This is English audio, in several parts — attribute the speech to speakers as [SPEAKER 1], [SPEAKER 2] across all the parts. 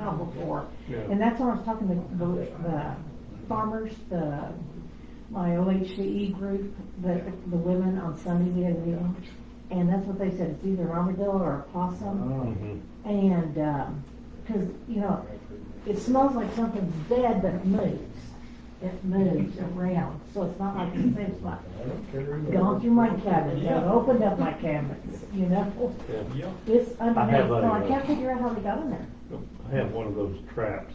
[SPEAKER 1] out before.
[SPEAKER 2] Yeah.
[SPEAKER 1] And that's what I was talking to the, the farmers, the, my OHCE E group, the, the women on Sunday, we had a meeting. And that's what they said, it's either an armadillo or a possum.
[SPEAKER 2] Mhm.
[SPEAKER 1] And, um 'cause cause, you know, it smells like something's dead, but it moves. It moves around, so it's not like the same spot. Gone through my cabin, I've opened up my cabins, you know?
[SPEAKER 2] Yeah.
[SPEAKER 1] It's underneath,
[SPEAKER 2] have a,
[SPEAKER 1] so I
[SPEAKER 2] uh,
[SPEAKER 1] can't figure out how they got in there.
[SPEAKER 2] I have one of those traps.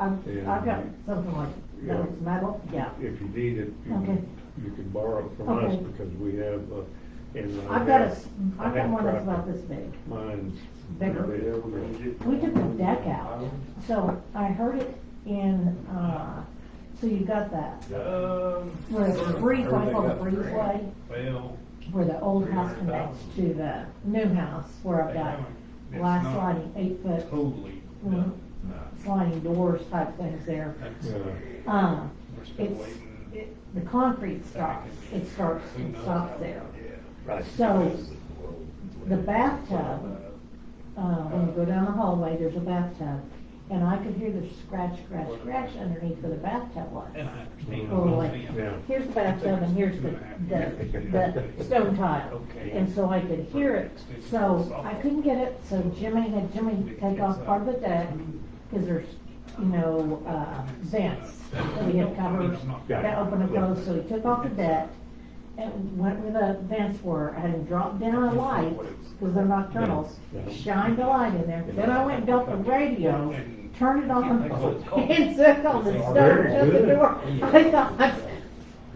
[SPEAKER 1] I've,
[SPEAKER 2] Yeah.
[SPEAKER 1] Um, I've got something like, no,
[SPEAKER 2] Yeah.
[SPEAKER 1] it's metal, yeah.
[SPEAKER 2] If you need it, you
[SPEAKER 1] Okay.
[SPEAKER 2] can, you can borrow it from us
[SPEAKER 1] Okay.
[SPEAKER 2] because we have, uh, and I
[SPEAKER 1] I've got a,
[SPEAKER 2] have-
[SPEAKER 1] s-
[SPEAKER 2] I
[SPEAKER 1] I've got
[SPEAKER 2] have
[SPEAKER 1] one that's
[SPEAKER 2] traps.
[SPEAKER 1] about this big.
[SPEAKER 2] Mine's.
[SPEAKER 1] Bigger.
[SPEAKER 2] big,
[SPEAKER 1] We took the deck out, so I heard it in, uh, so you got that,
[SPEAKER 3] Um.
[SPEAKER 1] where the breeze, what I call the breezeway,
[SPEAKER 3] Well.
[SPEAKER 1] where the old house connects to the new house, where I've
[SPEAKER 3] they
[SPEAKER 1] got
[SPEAKER 3] haven't- it's
[SPEAKER 1] glass
[SPEAKER 3] not
[SPEAKER 1] sliding, eight foot
[SPEAKER 3] Totally
[SPEAKER 1] Mhm.
[SPEAKER 3] done. No.
[SPEAKER 1] sliding doors type things there.
[SPEAKER 3] That's-
[SPEAKER 2] Yeah.
[SPEAKER 1] Um,
[SPEAKER 3] We're still
[SPEAKER 1] it's,
[SPEAKER 3] waiting.
[SPEAKER 1] it, the concrete stops, it starts
[SPEAKER 3] Who
[SPEAKER 1] and
[SPEAKER 3] knows how-
[SPEAKER 1] stops there.
[SPEAKER 3] Yeah.
[SPEAKER 2] Right.
[SPEAKER 1] So, the bathtub, uh, when you go down the hallway, there's a bathtub, and I could hear the scratch, scratch, scratch underneath where the bathtub
[SPEAKER 3] And
[SPEAKER 1] was.
[SPEAKER 3] I understand.
[SPEAKER 1] Or
[SPEAKER 3] I'm
[SPEAKER 1] like,
[SPEAKER 3] saying-
[SPEAKER 2] Yeah.
[SPEAKER 1] here's the bathtub and here's the, the, the stone tile.
[SPEAKER 3] Okay.
[SPEAKER 1] And so I could hear it, so I couldn't get it, so Jimmy had Jimmy take off part of the deck, cause there's, you know, uh, vents, so we had covers that open and close, so he took off the deck and went where the vents were, and dropped down a light, cause they're nocturnals,
[SPEAKER 2] Yeah.
[SPEAKER 1] shined the light in there, then I went and got the radio, turned it on, and took on the stone,
[SPEAKER 2] Very
[SPEAKER 1] shut the
[SPEAKER 2] good.
[SPEAKER 1] door. I thought,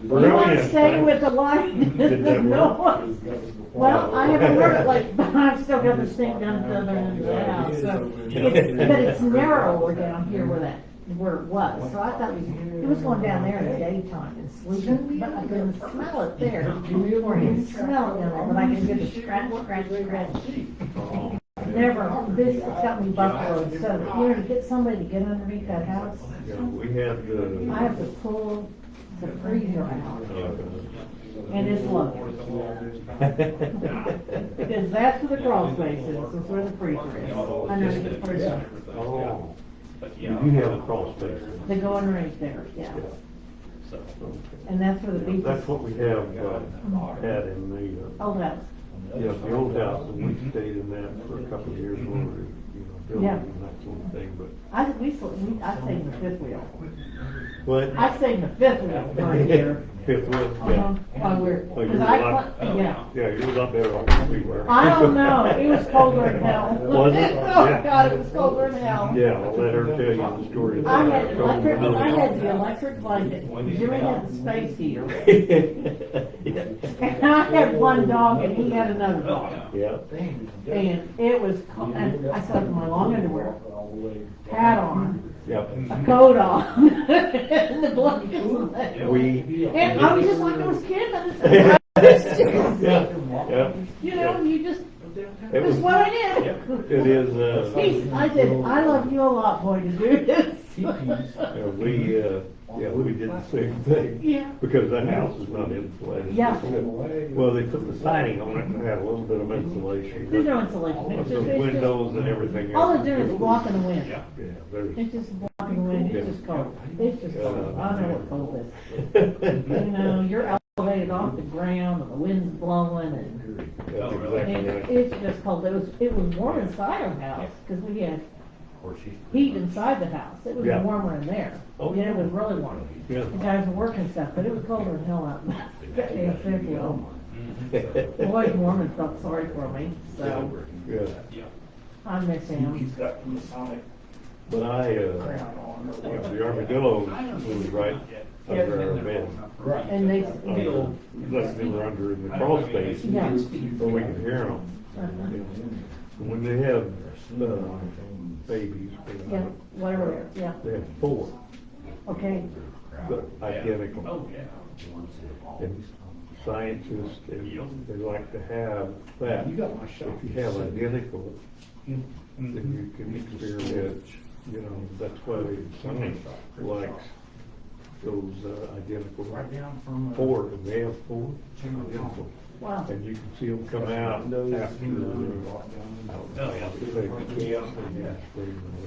[SPEAKER 1] you want to
[SPEAKER 2] Brilliant.
[SPEAKER 1] stay with the light and
[SPEAKER 2] Did
[SPEAKER 1] the
[SPEAKER 2] that work?
[SPEAKER 1] noise? Well, I haven't heard it like, but I've still got the stink down at the other end of the house, so. it's- But it's narrower down here where that, where it was, so I thought it was, it was going down there in the daytime and sleeping, but I couldn't smell it there. Or I could smell it down there, but I could hear the scratch, scratch, scratch. Never, this, it's got me buffalo, so you know, to get somebody to get underneath that house,
[SPEAKER 2] Yeah, we have the.
[SPEAKER 1] I have to pull the freezer out. And it's low, because that's where the crawl space is, that's where the freezer is. I know they get freezer,
[SPEAKER 2] Oh,
[SPEAKER 3] But,
[SPEAKER 2] you
[SPEAKER 3] yeah.
[SPEAKER 2] do have a crawl space.
[SPEAKER 1] they go underneath there, yeah,
[SPEAKER 2] Yeah.
[SPEAKER 3] So,
[SPEAKER 1] and that's where the beach is.
[SPEAKER 2] That's what we have, uh, had in the, uh,
[SPEAKER 1] Oh, that's,
[SPEAKER 2] yeah, the old
[SPEAKER 1] Mm-hmm.
[SPEAKER 2] house, and we stayed in that for a couple of years when we were, you know, building
[SPEAKER 1] Yeah.
[SPEAKER 2] and that sort of thing, but.
[SPEAKER 1] I, we, sl- we- I stayed in the fifth wheel.
[SPEAKER 2] What?
[SPEAKER 1] I stayed in the fifth wheel for a year.
[SPEAKER 2] Fifth wheel,
[SPEAKER 1] Uh-huh,
[SPEAKER 2] yeah.
[SPEAKER 1] While we're,
[SPEAKER 2] Oh, you
[SPEAKER 1] because
[SPEAKER 2] were
[SPEAKER 1] I,
[SPEAKER 2] like-
[SPEAKER 1] cl- yeah.
[SPEAKER 2] Yeah, you were not better off than we were.
[SPEAKER 1] I don't know, it was colder than hell.
[SPEAKER 2] Was it?
[SPEAKER 1] Oh,
[SPEAKER 2] Yeah.
[SPEAKER 1] God, it was colder than hell.
[SPEAKER 2] Yeah, I'll let her tell you the story.
[SPEAKER 1] I had electric, I had the electric blanket, Jimmy had the space heater, and I had one dog and he had another dog.
[SPEAKER 2] Yeah.
[SPEAKER 1] And it was, co- and I slept in my long underwear, hat
[SPEAKER 4] Hat
[SPEAKER 1] on,
[SPEAKER 2] Yep.
[SPEAKER 1] a coat on, and the blanket was there.
[SPEAKER 2] We,
[SPEAKER 1] And I was just like, I was kidding, I just- I was just,
[SPEAKER 2] yeah, yeah,
[SPEAKER 1] you know, you just,
[SPEAKER 2] it
[SPEAKER 1] that's
[SPEAKER 2] was,
[SPEAKER 1] what I did.
[SPEAKER 2] it is, uh,
[SPEAKER 1] He's, I said, I love you a lot, boy, to do this.
[SPEAKER 2] yeah, we, uh, yeah, we did the same thing,
[SPEAKER 1] Yeah.
[SPEAKER 2] because that house is not insulated.
[SPEAKER 1] Yeah.
[SPEAKER 2] Well, they put the siding on it and had a little bit of insulation.
[SPEAKER 1] There's no insulation.
[SPEAKER 2] But
[SPEAKER 1] It's
[SPEAKER 2] The
[SPEAKER 1] just- it's just-
[SPEAKER 2] windows and everything.
[SPEAKER 1] All
[SPEAKER 2] else
[SPEAKER 1] they're doing is blocking the wind.
[SPEAKER 3] yeah.
[SPEAKER 2] Yeah, there's.
[SPEAKER 1] It's just blocking the wind. It's just cold. It's just cold. I know what cold is. You know, you're elevated off the ground and the wind's blowing and,
[SPEAKER 2] That's
[SPEAKER 1] and
[SPEAKER 2] exactly right.
[SPEAKER 1] it's just cold. It was, it was warm inside our house because we had heat inside the house. It was
[SPEAKER 2] Yeah.
[SPEAKER 1] warmer in there.
[SPEAKER 2] Oh,
[SPEAKER 1] Yeah, it
[SPEAKER 2] yeah.
[SPEAKER 1] was really warm.
[SPEAKER 2] Yeah.
[SPEAKER 1] The guys were working stuff, but it was colder than hell out in the in the fifth wheel. Lloyd Mormon felt sorry for me, so
[SPEAKER 2] Yeah,
[SPEAKER 3] Yeah.
[SPEAKER 1] I miss him.
[SPEAKER 4] He's got the Masonic
[SPEAKER 2] but I, uh,
[SPEAKER 4] crown on.
[SPEAKER 2] you know, the armadillo was right under our bed.
[SPEAKER 4] Right.
[SPEAKER 1] And they,
[SPEAKER 2] Under- Like they were under in the crawl space,
[SPEAKER 1] Yeah.
[SPEAKER 2] where we could hear them.
[SPEAKER 1] uh-huh.
[SPEAKER 2] When they have, uh, babies, they
[SPEAKER 1] yeah,
[SPEAKER 2] have,
[SPEAKER 1] whatever, yeah,
[SPEAKER 2] they have four,
[SPEAKER 1] okay.
[SPEAKER 2] but identical.
[SPEAKER 3] Oh, yeah.
[SPEAKER 2] And scientists, and they like to have that.
[SPEAKER 4] You got my shot.
[SPEAKER 2] If you have identical,
[SPEAKER 3] Mhm.
[SPEAKER 2] then you can experiment, you know, that's why they, someone likes those uh, identical
[SPEAKER 4] Right down from. uh,
[SPEAKER 2] four, and they have four identical.
[SPEAKER 1] Wow.
[SPEAKER 2] And you can see them come out after, uh,
[SPEAKER 4] Walk down.
[SPEAKER 2] I don't know, if they camp and they-